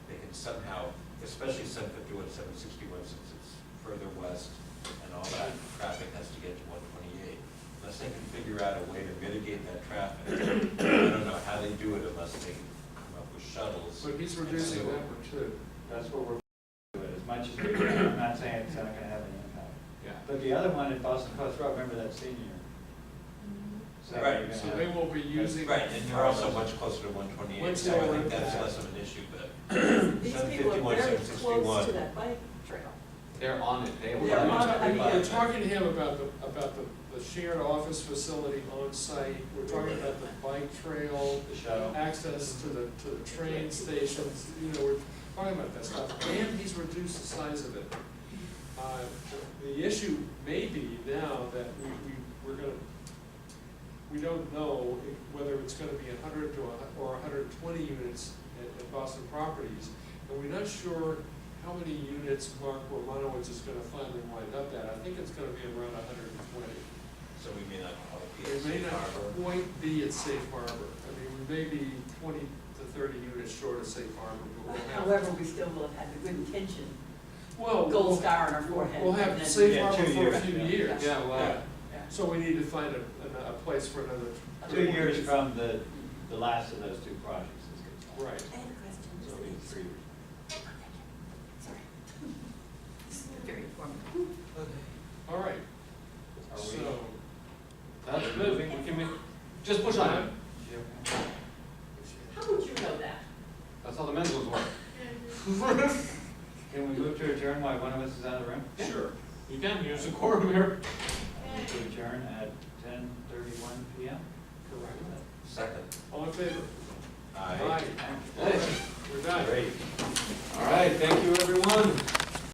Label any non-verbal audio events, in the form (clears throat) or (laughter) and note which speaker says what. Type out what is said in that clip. Speaker 1: somehow, especially seven fifty-one, seven sixty-one, since it's further west and all that traffic has to get to one twenty-eight. Unless they can figure out a way to mitigate that traffic, I don't know how they do it unless they come up with shuttles.
Speaker 2: But he's
Speaker 1: and
Speaker 2: reducing
Speaker 1: so-
Speaker 2: the number too.
Speaker 3: That's what we're doing, as much as we can, I'm not saying it's not gonna have any impact.
Speaker 2: Yeah.
Speaker 3: But the other one at Boston Post Road, remember that senior? So you're
Speaker 1: Right,
Speaker 3: gonna
Speaker 2: So
Speaker 3: have-
Speaker 2: they will be using.
Speaker 1: Right, and you're also much closer to one twenty-eight, so I think that's less of an issue, but
Speaker 4: (clears throat) These
Speaker 1: seven
Speaker 4: people
Speaker 1: fifty-one,
Speaker 4: are very
Speaker 1: seven
Speaker 4: close to
Speaker 1: sixty-one.
Speaker 4: that bike trail.
Speaker 5: They're on it, they
Speaker 2: We're
Speaker 5: will.
Speaker 1: Yeah,
Speaker 2: talking-
Speaker 4: I mean,
Speaker 2: We're
Speaker 1: it's-
Speaker 2: talking to him about the, about the, the shared office facility on site, we're talking about the bike trail,
Speaker 3: The shuttle.
Speaker 2: access to the, to the train stations, you know, we're talking about that stuff, and he's reduced the size of it. Uh, The issue may be now that we, we, we're gonna, we don't know if- whether it's gonna be a hundred to a, hu- or hundred and twenty units at, at Boston Properties, and we're not sure how many units Mark Romanowitz is gonna finally wind up at, I think it's gonna be around hundred and twenty.
Speaker 1: So we may not call it
Speaker 2: It may
Speaker 1: PSC
Speaker 2: not
Speaker 1: harbor.
Speaker 2: quite be at safe harbor, I mean, we may be twenty to thirty units short of safe harbor, but we'll have.
Speaker 4: However, we still will have had the good intention,
Speaker 2: Oh, Well, we'll-
Speaker 4: gold star on our forehead.
Speaker 2: We'll
Speaker 4: and
Speaker 2: have
Speaker 4: then-
Speaker 2: safe
Speaker 3: Yeah,
Speaker 2: harbor
Speaker 3: two
Speaker 2: for a
Speaker 3: years,
Speaker 2: few
Speaker 3: yeah.
Speaker 2: years.
Speaker 3: Yeah,
Speaker 2: well,
Speaker 1: Yeah.
Speaker 4: Yeah.
Speaker 2: So we need to find a, a, a place for another.
Speaker 3: Two years from the, the last of those two projects is good.
Speaker 2: Right.
Speaker 4: I had a question,
Speaker 3: So
Speaker 4: just
Speaker 3: it'll be three years.
Speaker 4: sorry. (laughs) This is very informative.
Speaker 2: All right,
Speaker 3: Are we-
Speaker 2: so.
Speaker 5: That's moving, we can make, just push on it.
Speaker 4: How would you know that?
Speaker 5: That's how the men's ones work.
Speaker 3: Can we move to adjourn while one of us is out of the room?
Speaker 2: Sure.
Speaker 5: You can use the quorum here.
Speaker 3: Move To adjourn at ten thirty-one P M?
Speaker 2: Correct.
Speaker 1: Second,
Speaker 2: All in favor?
Speaker 1: aye.
Speaker 2: Aye,
Speaker 3: Thank you.
Speaker 2: we're done.
Speaker 1: Great.
Speaker 5: All right, thank you, everyone.